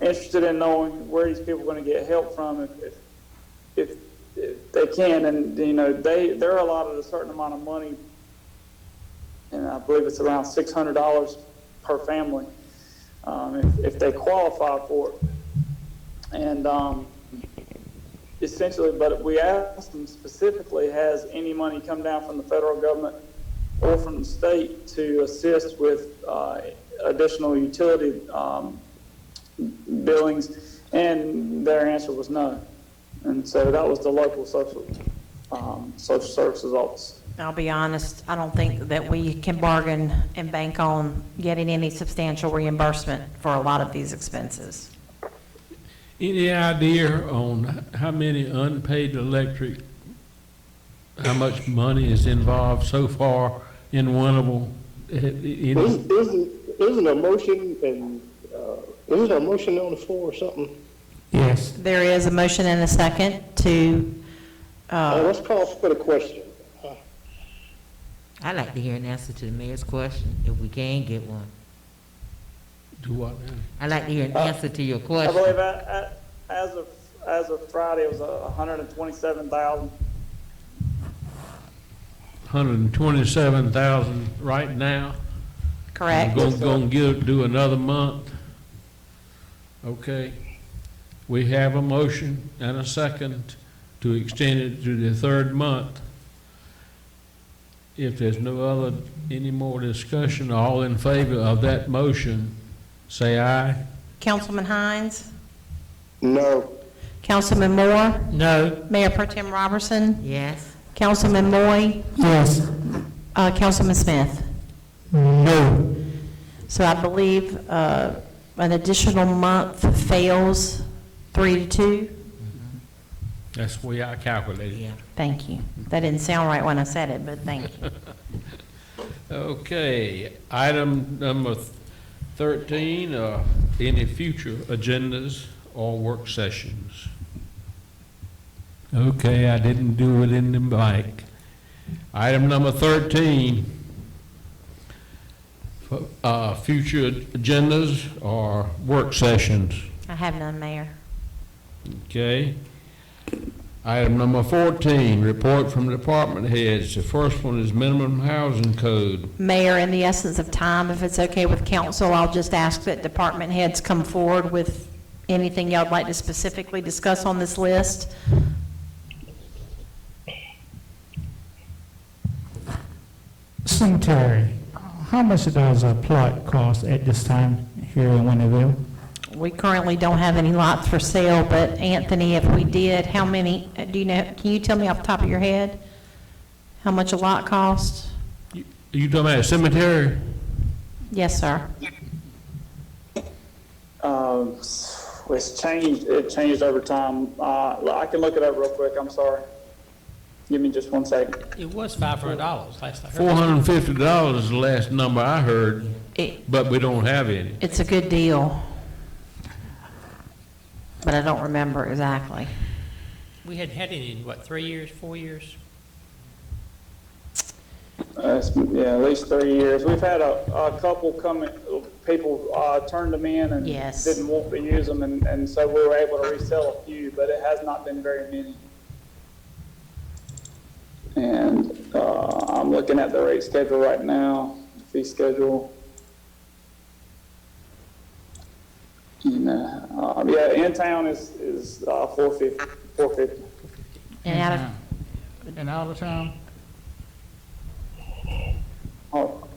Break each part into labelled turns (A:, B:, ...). A: interested in knowing where these people are going to get help from if, if, if, if they can. And, you know, they, they're allotted a certain amount of money, and I believe it's around $600 per family um, if, if they qualify for it. And um, essentially, but we asked them specifically, has any money come down from the federal government or from the state to assist with uh, additional utility um, billings? And their answer was no. And so that was the local social, um, social services office.
B: I'll be honest, I don't think that we can bargain and bank on getting any substantial reimbursement for a lot of these expenses.
C: Any idea on how many unpaid electric, how much money is involved so far in Winnable? Eh, eh, any-
D: Isn't, isn't- isn't a motion and, uh, isn't a motion on the floor or something?
C: Yes.
B: There is a motion and a second to,
D: Uh,
B: uh,
D: let's call for the question. Uh,
E: I'd like to hear an answer to the mayor's question, if we can get one.
C: Do what now?
E: I'd like to hear an answer to your
A: I believe
E: question.
A: a- a- as of, as of Friday, it was a hundred and twenty-seven thousand.
C: Hundred and twenty-seven thousand right now?
B: correct?
C: Gonna, gonna give, do another month? Okay. We have a motion and a second to extend it to the third month. If there's no other, any more discussion, all in favor of that motion, say aye.
B: Councilman Hines?
D: No,
B: Councilman Moore?
E: No.
B: Mayor Pro Tem Robertson?
E: Yes,
B: Councilman Moy?
F: Yes.
B: Uh, Councilman Smith?
F: No.
B: So I believe uh, an additional month fails three to two.
C: That's the way I calculated.
E: yeah.
B: Thank you. That didn't sound right when I said it, but thank you.
C: Okay, item number thirteen, uh, any future agendas or work sessions? Okay, I didn't do it in the mic. Item number thirteen, fu- uh, future agendas or work sessions,
B: I have none, Mayor.
C: okay? Item number fourteen, report from department heads. The first one is minimum housing code.
B: Mayor, in the essence of time, if it's okay with council, I'll just ask that department heads come forward with anything y'all'd like to specifically discuss on this list.
F: Cemetery, how much does a plot cost at this time here in Winterville?
B: We currently don't have any lots for sale, but Anthony, if we did, how many, do you know, can you tell me off the top of your head? How much a lot costs?
C: You you talking about a cemetery?
B: Yes, sir.
A: Um, it's changed, it changed over time. Uh, I can look it up real quick, I'm sorry. Give me just one second.
G: It was five hundred dollars last I heard.
C: Four hundred and fifty dollars is the last number I heard,
B: It,
C: but we don't have any.
B: it's a good deal. But I don't remember exactly.
G: We hadn't had any in, what, three years, four years?
A: Uh, it's, yeah, at least three years. We've had a, a couple come, in- people, uh, turned them in and
B: Yes.
A: didn't want to use them, and, and so we were able to resell a few, but it has not been very many. And, uh, I'm looking at the rate schedule right now, fee schedule. And, uh, uh, yeah, in-town is, is, uh, four fifty, four fifty.
B: And out of,
F: Mm-hmm. And out of town?
A: Oh.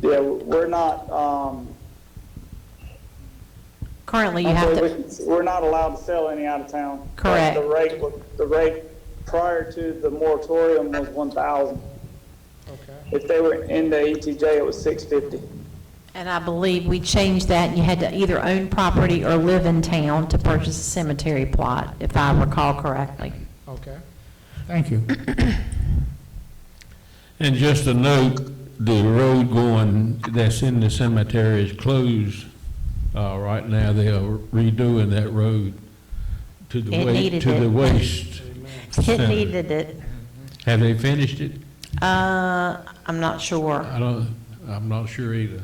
A: Yeah, we're not, um,
B: currently you have to,
A: we're not allowed to sell any out of town.
B: Correct.
A: The rate, was- the rate prior to the moratorium was one thousand. Okay. If they were in the ETJ, it was six fifty.
B: and I believe we changed that, and you had to either own property or live in town to purchase a cemetery plot, if I recall correctly.
F: Thank you.
C: And just a note, the road going that's in the cemetery is closed, uh, right now. They are redoing that road to the
B: It
C: wa,
B: needed
C: to the
B: it.
C: waste.
B: It needed it.
C: Have they finished it?
B: Uh, I'm not sure.
C: I don't, I'm not sure either.